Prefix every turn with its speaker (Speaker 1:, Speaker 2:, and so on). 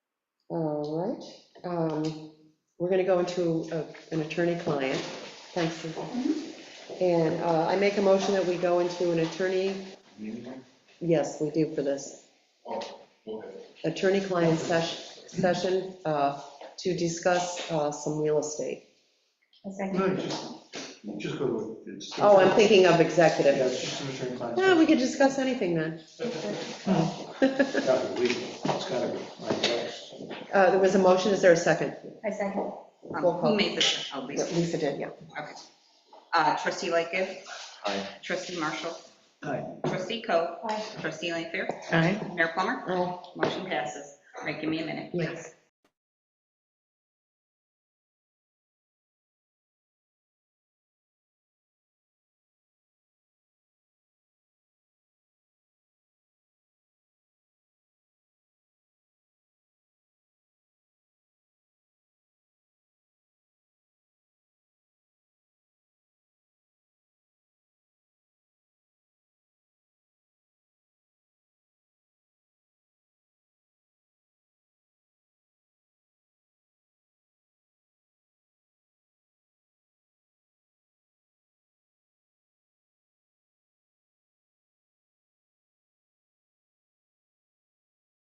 Speaker 1: All right, um, we're gonna go into a- an attorney-client, thanks, Susan. And uh, I make a motion that we go into an attorney,
Speaker 2: Meeting?
Speaker 1: yes, we do for this,
Speaker 2: Oh, okay.
Speaker 1: attorney-client sesh- session uh, to discuss uh, some real estate.
Speaker 3: A second.
Speaker 2: No, just, just go with it. It's-
Speaker 1: Oh, I'm thinking of
Speaker 2: Yeah,
Speaker 1: executive.
Speaker 2: it's just an attorney client.
Speaker 1: Yeah, we could discuss anything then.
Speaker 2: It's gotta be legal, it's gotta be, I guess.
Speaker 1: Uh, There was a motion, is there a second?
Speaker 3: A second.
Speaker 4: Um,
Speaker 1: Roll call.
Speaker 4: Who made this? Oh, Lisa.
Speaker 1: Lisa did, yeah.
Speaker 4: Okay. Uh, Trustee Lightgev. Aye. Trustee Marshall.
Speaker 2: Aye.
Speaker 4: Trustee Coe.
Speaker 3: Aye.
Speaker 4: Trustee Lanfair.
Speaker 1: Aye.
Speaker 4: Mayor Plummer.
Speaker 1: Aye.
Speaker 4: Motion passes. All right, give me a minute,
Speaker 1: Yeah.
Speaker 4: please.